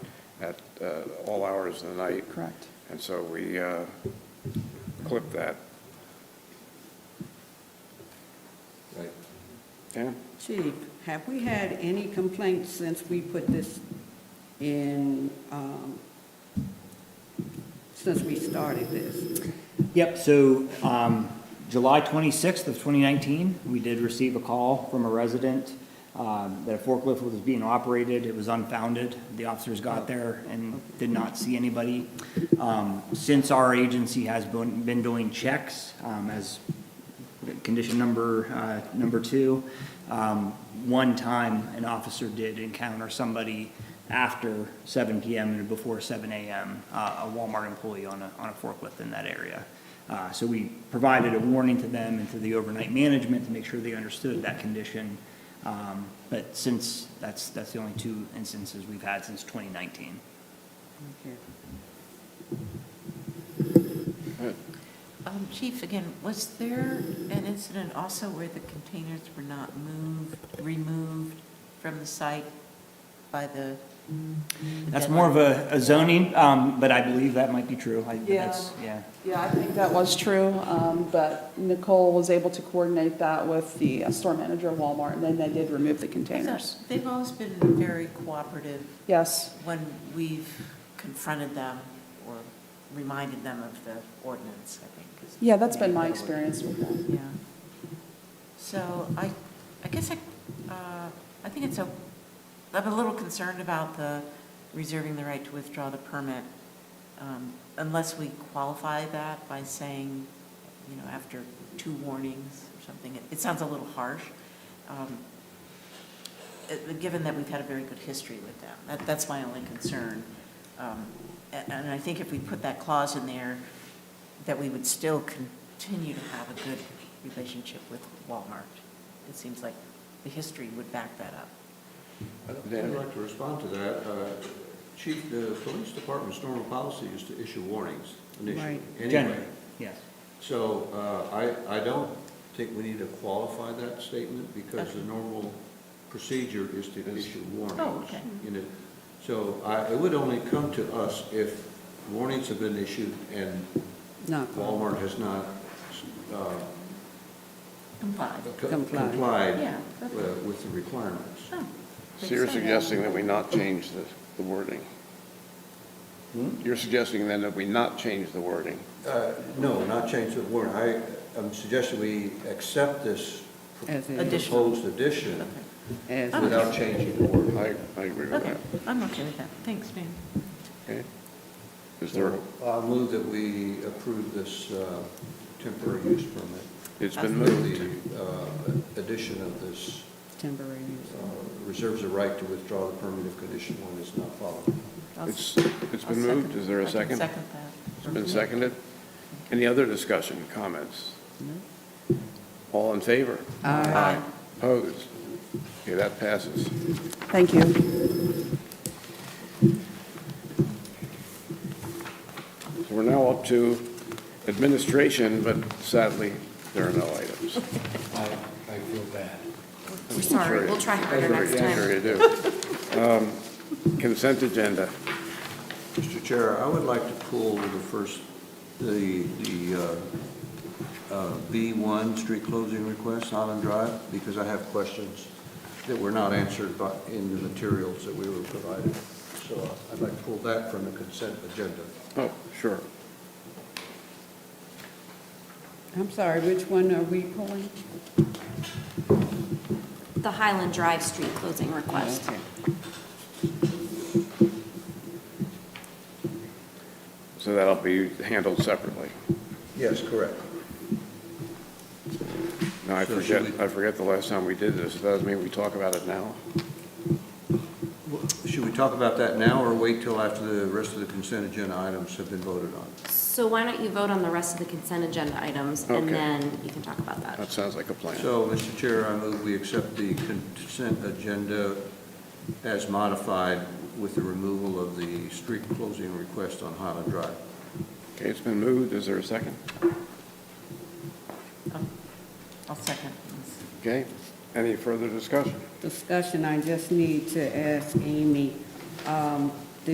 at uh, all hours of the night. Correct. And so we uh, clipped that. Right. Yeah, Chief, have we had any complaints since we put this in, um, since we started this? Yep, so um, July 26th of 2019, we did receive a call from a resident um, that a forklift was being operated. It was unfounded. The officers got there and did not see anybody. Um, Since our agency has been been doing checks, um, as condition number, uh, number two. Um, One time, an officer did encounter somebody after seven PM and before seven AM, uh, a Walmart employee on a, on a forklift in that area. Uh, So we provided a warning to them and to the overnight management to make sure they understood that condition. Um, But since, that's, that's the only two instances we've had since 2019. Um, Chief, again, was there an incident also where the containers were not moved, removed from the site by the? That's more of a a zoning, um, but I believe that might be true. I- Yeah. that's- Yeah. Yeah, I think that was true, um, but Nicole was able to coordinate that with the uh, store manager of Walmart, and then they did remove the containers. They've always been very cooperative Yes, when we've confronted them or reminded them of the ordinance, I think. is- yeah, that's been my experience with them. Yeah. So I, I guess I, uh, I think it's a, I'm a little concerned about the reserving the right to withdraw the permit um, unless we qualify that by saying, you know, after two warnings or something. It- It sounds a little harsh, um, it- uh, given that we've had a very good history with them. That, that's my only concern. Um, a- And I think if we put that clause in there, that we would still continue to have a good relationship with Walmart. It seems like the history would back that up. I'd like to respond to that. Uh, Chief, the police department's normal policy is to issue warnings initially, Right. anyway. Generally, yes. So uh, I, I don't think we need to qualify that statement because the normal procedure is to issue warnings. Oh, okay. You know, So I, it would only come to us if warnings have been issued and No. Walmart has not uh, Comply. co- Complied. complied Yeah. uh, okay. with the requirements. Oh, they so you're say that. suggesting that we not change the the wording? You're suggesting then that we not change the wording? Uh, No, not change the warrant. I, I'm suggesting we accept this As is. Additional. proposed addition Okay. As Oh. without changing the warrant. I, I agree with Okay, that. I'm okay with that. Thanks, ma'am. Okay? Is there, I'll move that we approve this uh, temporary use permit. it's been With moved. the uh, addition of this temporary uh, use. reserves the right to withdraw the permit if condition one is not followed. I'll It's, s- it's I'll been moved. second- Is there I a can second? Second It's that. been seconded. Any other discussion, comments? All in favor? Aye. Opposed? Okay, that passes. Thank you. So we're now up to administration, but sadly, there are no items. I, I feel bad. We're sorry, we'll try harder next time. Sure you do. Um, Consent agenda. Mr. Chair, I would like to pull the first, the, the uh, uh, B1 street closing request, Highland Drive, because I have questions that were not answered by, in the materials that we were provided. So I'd like to pull that from the consent agenda. Oh, sure. I'm sorry, which one are we pulling? The Highland Drive Street closing request. Oh, Okay. So that'll be handled separately. Yes, correct. Now, I So should forget, we- I forget the last time we did this. Does that mean we talk about it now? Should we talk about that now or wait till after the rest of the consent agenda items have been voted on? So why don't you vote on the rest of the consent agenda items, and Okay. then you can talk about that. That sounds like a plan. So, Mr. Chair, I move we accept the consent agenda as modified with the removal of the street closing request on Highland Drive. Okay, it's been moved. Is there a second? I'll second. Okay, any further discussion? discussion, I just need to ask Amy, um,